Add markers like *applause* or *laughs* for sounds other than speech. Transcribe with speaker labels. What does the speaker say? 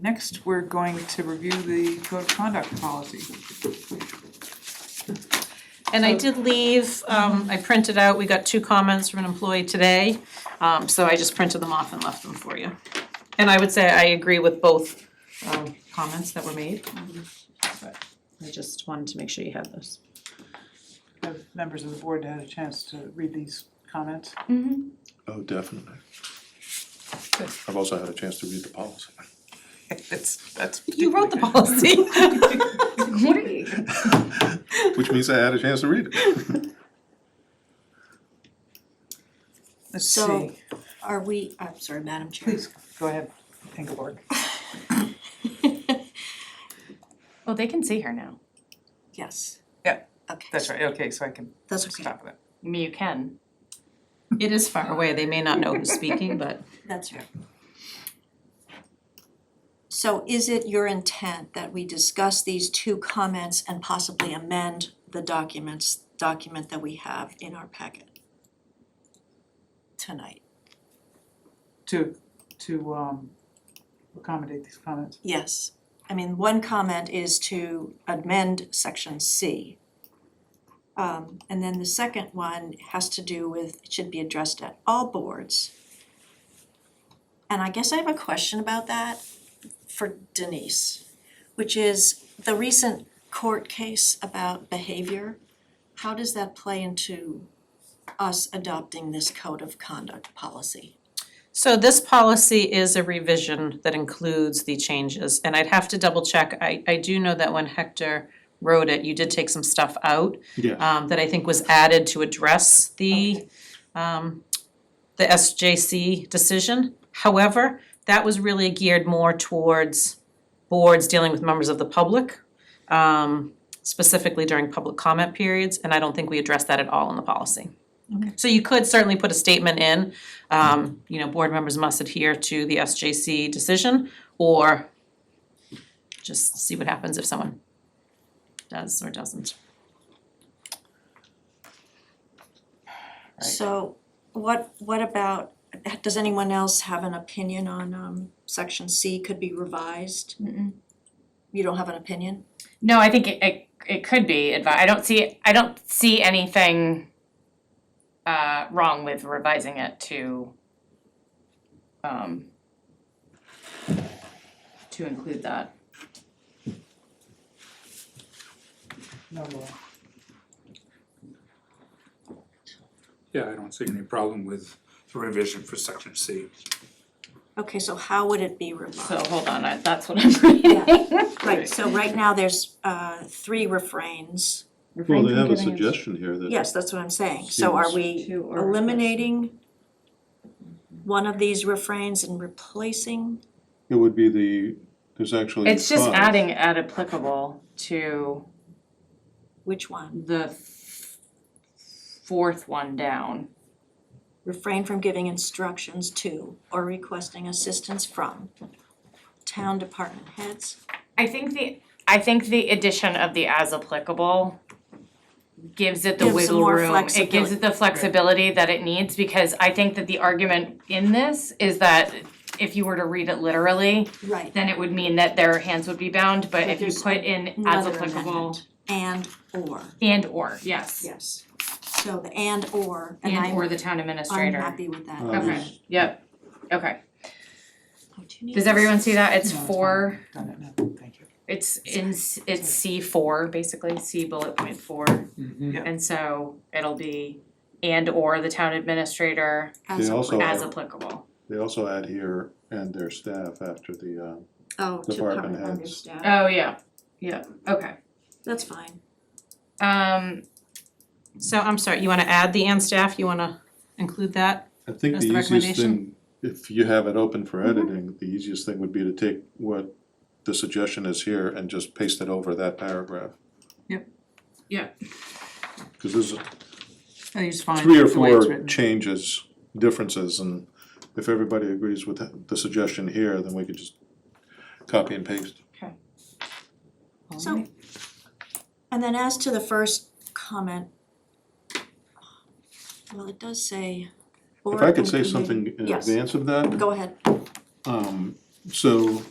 Speaker 1: Next, we're going to review the code of conduct policy.
Speaker 2: And I did leave, um, I printed out, we got two comments from an employee today, um, so I just printed them off and left them for you. And I would say I agree with both, um, comments that were made. But I just wanted to make sure you had those.
Speaker 1: Have members of the board had a chance to read these comments?
Speaker 3: Oh, definitely.
Speaker 1: Good.
Speaker 3: I've also had a chance to read the policy.
Speaker 1: It's, that's.
Speaker 2: You wrote the *laughs* policy.
Speaker 4: Great.
Speaker 3: Which means I had a chance to read it.
Speaker 1: Let's
Speaker 4: So-
Speaker 1: see,
Speaker 4: Are we, I'm sorry, Madam Chair.
Speaker 1: please, go ahead, Ingeborg.
Speaker 5: Well, they can see her now.
Speaker 4: Yes.
Speaker 1: Yeah,
Speaker 4: Okay.
Speaker 1: That's right, okay, so I can
Speaker 4: That's okay.
Speaker 1: stop that.
Speaker 5: I mean, you can.
Speaker 2: It is far away, they may not know who's speaking, but
Speaker 4: That's right. So is it your intent that we discuss these two comments and possibly amend the documents, document that we have in our packet? Tonight,
Speaker 1: To, to, um, accommodate these comments.
Speaker 4: yes. I mean, one comment is to amend section C. Um, and then the second one has to do with, it should be addressed at all boards. And I guess I have a question about that for Denise, which is the recent court case about behavior. How does that play into us adopting this code of conduct policy?
Speaker 2: So this policy is a revision that includes the changes, and I'd have to double check, I I do know that when Hector wrote it, you did take some stuff out.
Speaker 3: Yeah.
Speaker 2: um, that I think was added to address the, um, the SJC decision. However, that was really geared more towards boards dealing with members of the public, um, specifically during public comment periods, and I don't think we addressed that at all in the policy. Okay. So you could certainly put a statement in, um, you know, board members must adhere to the SJC decision, or just see what happens if someone does or doesn't.
Speaker 4: So what what about, does anyone else have an opinion on um section C could be revised? You don't have an opinion?
Speaker 5: No, I think it, it, it could be advi- I don't see, I don't see anything uh, wrong with revising it to um, to include that.
Speaker 1: No, Laura.
Speaker 6: Yeah, I don't see any problem with the revision for section C.
Speaker 4: Okay, so how would it be
Speaker 5: So
Speaker 4: revised?
Speaker 5: hold on, I, that's what I'm *laughs* reading.
Speaker 4: Right, so right now there's uh three refrains.
Speaker 3: Well, they have a suggestion here that.
Speaker 4: Yes, that's what I'm saying. So are we
Speaker 5: Two or-
Speaker 4: eliminating one of these refrains and replacing?
Speaker 3: It would be the, there's actually.
Speaker 5: It's just
Speaker 3: five.
Speaker 5: adding at applicable to
Speaker 4: Which one?
Speaker 5: the f- fourth one down.
Speaker 4: Refrain from giving instructions to or requesting assistance from town department heads?
Speaker 5: I think the, I think the addition of the as applicable gives it the
Speaker 4: Gives some
Speaker 5: wiggle
Speaker 4: more
Speaker 5: room, it gives
Speaker 4: flexibility.
Speaker 5: it the flexibility that it needs, because I think that the argument in this is that if you were to read it literally,
Speaker 4: Right.
Speaker 5: then it would mean that their hands would be bound, but
Speaker 4: But
Speaker 5: if you
Speaker 4: there's
Speaker 5: put in as
Speaker 4: Another
Speaker 5: applicable
Speaker 4: amendment. And or,
Speaker 5: and or, yes,
Speaker 4: yes. So the and or, and
Speaker 5: and
Speaker 4: I'm,
Speaker 5: or the town
Speaker 4: I'm
Speaker 5: administrator.
Speaker 4: happy with that.
Speaker 3: Uh,
Speaker 5: Okay, yep, okay.
Speaker 4: Oh, do you need
Speaker 5: Does
Speaker 4: this?
Speaker 5: everyone see that? It's
Speaker 1: No, it's
Speaker 5: four.
Speaker 1: Done it, no, thank you.
Speaker 5: It's in, s- it's C four, basically, C bullet point four.
Speaker 3: Mm-hmm.
Speaker 1: Yeah.
Speaker 5: And so it'll be and or the town administrator
Speaker 4: As
Speaker 3: They also-
Speaker 4: applicable.
Speaker 5: as applicable.
Speaker 3: They also add here and their staff after the, um,
Speaker 4: Oh,
Speaker 3: department
Speaker 4: department under
Speaker 3: heads.
Speaker 4: staff,
Speaker 5: Oh, yeah, yeah, okay.
Speaker 4: that's fine.
Speaker 5: Um,
Speaker 2: So I'm sorry, you wanna add the and staff, you wanna include that?
Speaker 3: I think
Speaker 2: That's
Speaker 3: the
Speaker 2: the
Speaker 3: easiest
Speaker 2: recommendation.
Speaker 3: thing, if you have it open for editing, the easiest thing would be to take what the suggestion is here and just paste it over that paragraph.
Speaker 1: Yep.
Speaker 5: Yeah.
Speaker 3: Cause there's
Speaker 1: I think it's fine,
Speaker 3: three or
Speaker 1: the way it's
Speaker 3: four
Speaker 1: written.
Speaker 3: changes, differences, and if everybody agrees with the suggestion here, then we could just copy and paste.
Speaker 4: So, and then as to the first comment, well, it does say.
Speaker 3: If
Speaker 4: board
Speaker 3: I could
Speaker 4: and
Speaker 3: say
Speaker 4: committee-
Speaker 3: something in
Speaker 4: Yes.
Speaker 3: advance of that,
Speaker 4: Go ahead.
Speaker 3: um, so